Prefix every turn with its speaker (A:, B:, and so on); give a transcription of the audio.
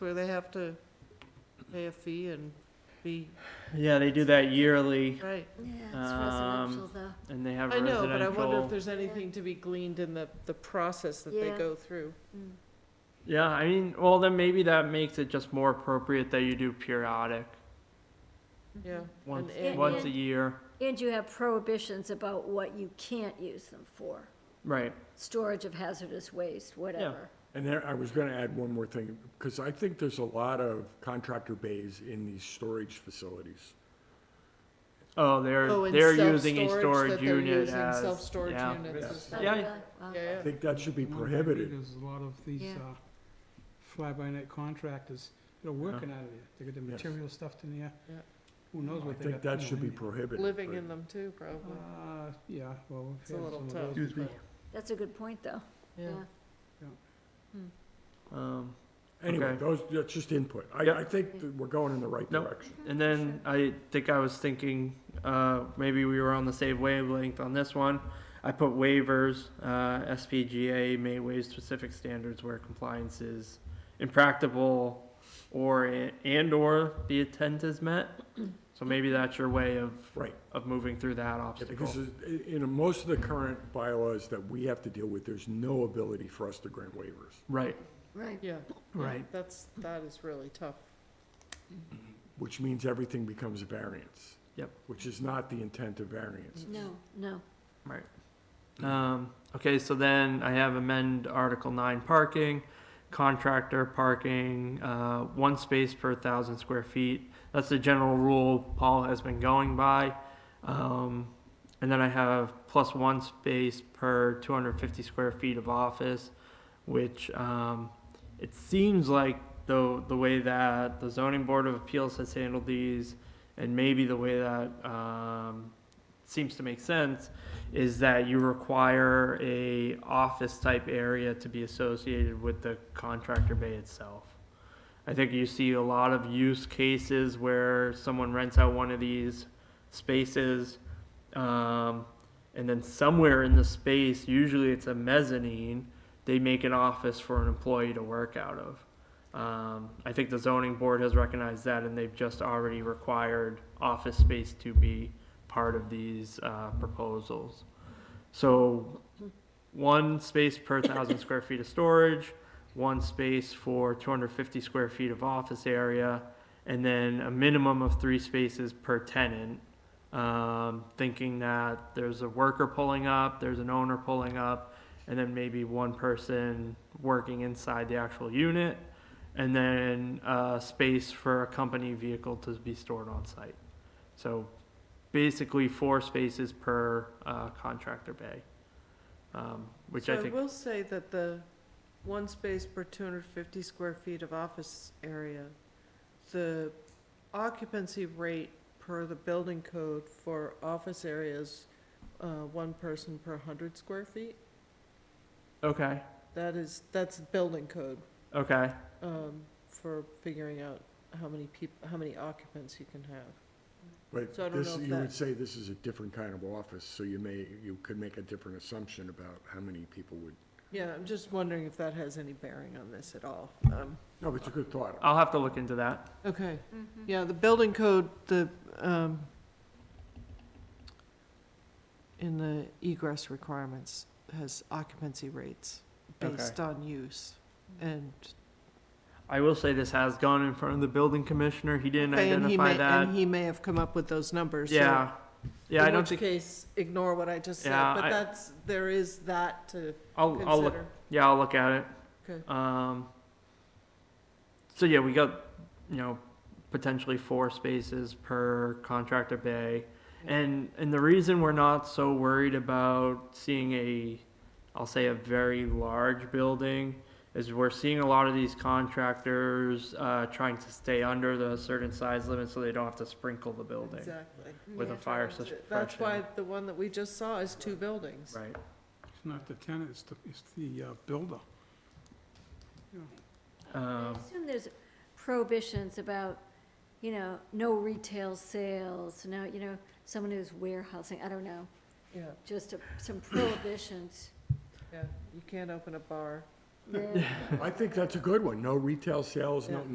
A: where they have to pay a fee and be,
B: Yeah, they do that yearly,
A: right.
C: Yeah, it's
B: Um,
C: residential though.
B: and they have
A: I know,
B: residential.
A: but I wonder if there's anything to be gleaned in the, the process that they
C: Yeah.
A: go through.
C: Mm.
B: Yeah, I mean, well, then maybe that makes it just more appropriate that you do periodic,
A: Yeah.
B: once,
A: and-
B: once a year.
C: And you have prohibitions about what you can't use them for,
B: Right,
C: storage of hazardous waste, whatever.
D: And there, I was gonna add one more thing, because I think there's a lot of contractor bays in these storage facilities.
B: oh, they're,
A: Oh, and
B: they're using a
A: self-storage,
B: storage
A: that they're
B: unit
A: using
B: as,
A: Self-storage
B: yeah.
A: units. and stuff.
C: Oh,
B: Yeah.
C: really? Wow.
A: Yeah,
D: I
A: yeah.
D: think that should be
E: One thing I do,
D: prohibited.
E: There's a lot of these,
C: Yeah.
E: uh, fly-by-night contractors that are working out of there. They got the
D: Yes.
E: material stuffed in there.
A: Yeah.
E: Who knows
D: I
E: what they
D: think
E: got.
D: that
E: you know,
D: should be
E: in there.
D: prohibited.
A: Living
D: but-
A: in them too, probably.
E: Uh, yeah, well, we've
A: It's a
E: had
A: little
E: some of
A: tough.
E: those.
D: Excuse me.
C: That's a good point though,
A: Yeah.
C: yeah.
B: um,
D: Anyway,
B: Okay.
D: those, that's just input. I,
B: Yep.
D: I think that we're going in the right
B: Nope.
D: direction.
B: And then I think I was thinking, uh, maybe we were on the same wavelength on this one. I put waivers, uh, SPGA may waive specific standards where compliance is impracticable or, and or the intent is met. So maybe that's your way of,
D: Right.
B: of moving through that
D: Yeah,
B: obstacle.
D: Because i- in most of the current bylaws that we have to deal with, there's no ability for us to grant waivers.
B: Right,
C: Right,
A: Yeah.
B: right.
A: That's, that is really tough.
D: which means everything becomes a variance.
B: Yep.
D: Which is not the intent of variance.
C: no, no.
B: Um, okay, so then I have amend Article nine parking, contractor parking, uh, one space per thousand square feet. That's the general rule Paul has been going by. Um, and then I have plus one space per two hundred fifty square feet of office, which, um, it seems like the, the way that the zoning board of appeals has handled these and maybe the way that, um, seems to make sense is that you require a office type area to be associated with the contractor bay itself. I think you see a lot of use cases where someone rents out one of these spaces, um, and then somewhere in the space, usually it's a mezzanine, they make an office for an employee to work out of. Um, I think the zoning board has recognized that, and they've just already required office space to be part of these uh, proposals. So one space per thousand square feet of storage, one space for 250 square feet of office area, and then a minimum of three spaces per tenant. Um, thinking that there's a worker pulling up, there's an owner pulling up, and then maybe one person working inside the actual unit, and then uh, space for a company vehicle to be stored on site. So basically four spaces per uh, contractor bay, um, which I
A: So
B: think.
A: I will say that the one space per two hundred fifty square feet of office area, the occupancy rate per the building code for office areas, uh, one person per hundred square feet.
B: Okay.
A: That is, that's building code,
B: Okay.
A: um, for figuring out how many peop- how many occupants you can have.
D: But
A: So I don't know
D: this,
A: if
D: you would
A: that-
D: say this is a different kind of office, so you may, you could make a different assumption about how many people would.
A: Yeah, I'm just wondering if that has any bearing on this at all. Um,
D: No, but it's a good thought.
B: I'll have to look into that.
A: okay.
C: Mhm.
A: Yeah, the building code, the, um, in the egress requirements has occupancy rates based on use. And,
B: I will say this has gone in front of the building commissioner. He didn't
A: and he
B: identify
A: may,
B: that.
A: and he may have come up with those numbers, so.
B: yeah. Yeah, I don't
A: In
B: think.
A: which case, ignore what I just said,
B: Yeah,
A: but
B: I-
A: that's, there is that to
B: I'll, I'll look.
A: consider.
B: Yeah, I'll look at it.
A: Okay.
B: Um, so yeah, we got, you know, potentially four spaces per contractor bay. And, and the reason we're not so worried about seeing a, I'll say a very large building is we're seeing a lot of these contractors, uh, trying to stay under the certain size limit so they don't have to sprinkle the building
A: Exactly.
B: with a
C: Yeah.
B: fire
A: That's
B: suppression.
A: it. That's why the one that we just saw is two buildings.
B: Right,
E: It's not the tenant, it's the, it's the uh, builder.
C: I
B: um,
C: assume there's prohibitions about, you know, no retail sales, no, you know, someone who's warehousing, I don't know,
A: Yeah,
C: just a- some prohibitions.
A: yeah. You can't open a bar.
C: Yeah.
D: I think that's a good one. No retail sales, no,
A: Yeah.